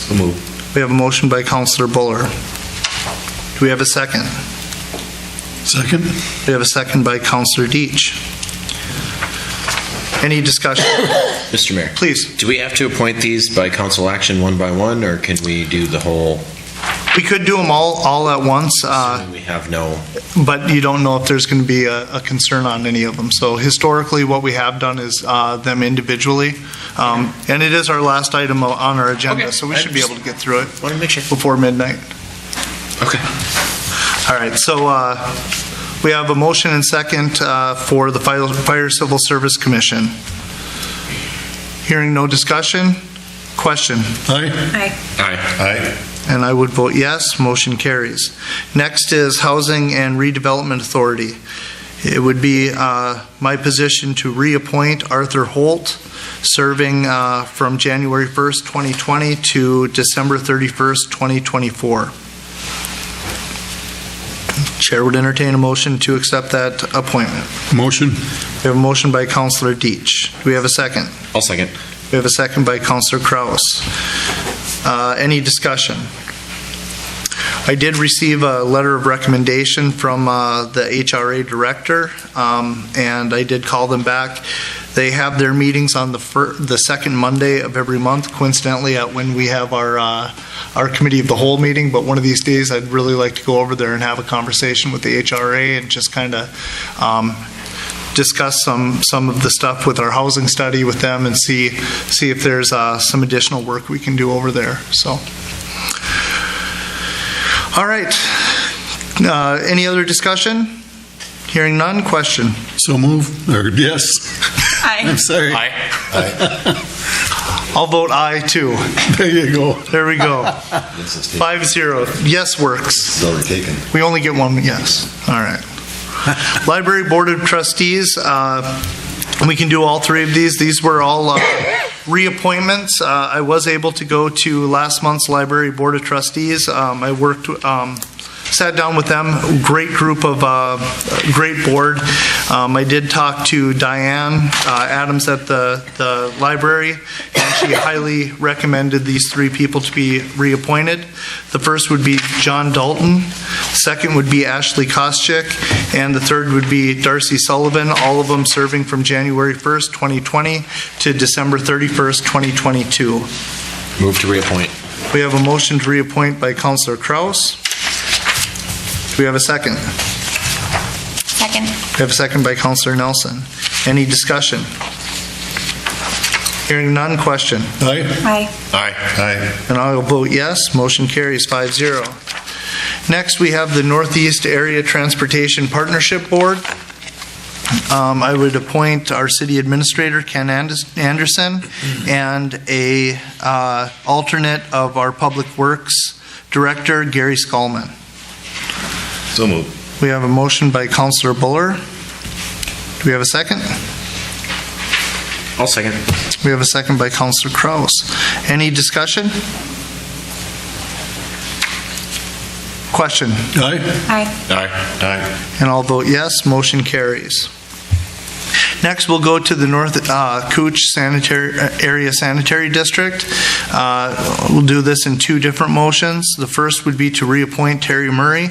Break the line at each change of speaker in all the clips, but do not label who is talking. So moved.
We have a motion by Counselor Buller. Do we have a second?
Second?
We have a second by Counselor Deitch. Any discussion?
Mr. Mayor,
Please,
do we have to appoint these by council action one by one, or can we do the whole,
we could do them all, all at once, uh,
assuming we have no?
but you don't know if there's going to be a a concern on any of them. So historically, what we have done is uh, them individually, Um, and it is our last item on our agenda,
Okay.
so we should be able to get through it
Want to make sure.
before midnight.
Okay.
All right, so uh, we have a motion and second uh, for the Fire Fire Civil Service Commission. Hearing no discussion, question,
Aye.
Aye.
Aye.
and I would vote yes, motion carries. Next is Housing and Redevelopment Authority. It would be uh, my position to reappoint Arthur Holt, serving uh, from January 1st, 2020 to December 31st, 2024. Chair would entertain a motion to accept that appointment.
Motion?
We have a motion by Counselor Deitch. Do we have a second?
I'll second.
We have a second by Counselor Kraus. Uh, Any discussion? I did receive a letter of recommendation from uh, the HRA director, um, and I did call them back. They have their meetings on the fir, the second Monday of every month, coincidentally at when we have our, uh, our committee of the whole meeting, but one of these days, I'd really like to go over there and have a conversation with the HRA and just kind of um, discuss some, some of the stuff with our housing study with them and see, see if there's uh, some additional work we can do over there, so. All right. Uh, Any other discussion? Hearing none, question.
So move, or yes. I'm
Aye.
sorry.
Aye.
I'll vote aye, too.
There you go.
There we go. Five zero. Yes works.
It's already taken.
We only get one yes. All right. Library Board of Trustees, uh, we can do all three of these. These were all uh, reappointments. Uh, I was able to go to last month's Library Board of Trustees. Um, I worked, um, sat down with them, great group of, uh, great board. Um, I did talk to Diane uh, Adams at the, the library, and she highly recommended these three people to be reappointed. The first would be John Dalton, second would be Ashley Koscheck, and the third would be Darcy Sullivan, all of them serving from January 1st, 2020 to December 31st, 2022.
Move to reappoint.
We have a motion to reappoint by Counselor Kraus. Do we have a second?
Second.
We have a second by Counselor Nelson. Any discussion? Hearing none, question.
Aye.
Aye.
Aye.
Aye.
And I will vote yes, motion carries 5-0. Next, we have the Northeast Area Transportation Partnership Board. Um, I would appoint our city administrator, Ken Andes- Anderson, and a uh, alternate of our Public Works Director, Gary Skolman.
So moved.
We have a motion by Counselor Buller. Do we have a second?
I'll second.
We have a second by Counselor Kraus. Any discussion? Question?
Aye.
Aye.
Aye.
Aye.
And I'll vote yes, motion carries. Next, we'll go to the North uh, Cooch Sanitary, uh, Area Sanitary District. Uh, We'll do this in two different motions. The first would be to reappoint Terry Murray,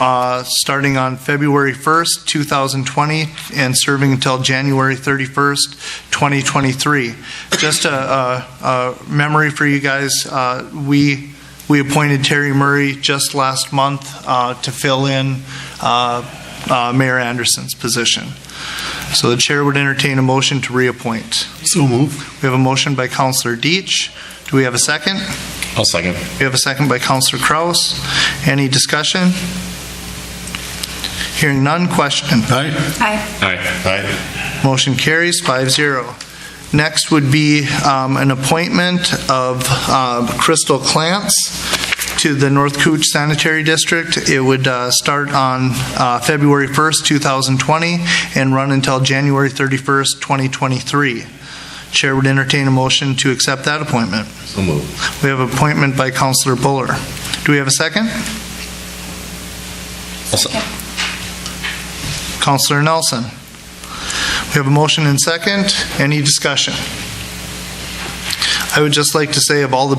uh, starting on February 1st, 2020, and serving until January 31st, 2023. Just a- a a memory for you guys, uh, we, we appointed Terry Murray just last month uh, to fill in uh, uh, Mayor Anderson's position. So the chair would entertain a motion to reappoint.
So move.
We have a motion by Counselor Deitch. Do we have a second?
I'll second.
We have a second by Counselor Kraus. Any discussion? Hearing none, question.
Aye.
Aye.
Aye.
Aye.
Motion carries 5-0. Next would be um, an appointment of uh, Crystal Clance to the North Cooch Sanitary District. It would uh, start on uh, February 1st, 2020, and run until January 31st, 2023. Chair would entertain a motion to accept that appointment.
So moved.
We have appointment by Counselor Buller. Do we have a second?
I'll se-
Counselor Nelson. We have a motion and second. Any discussion? I would just like to say of all the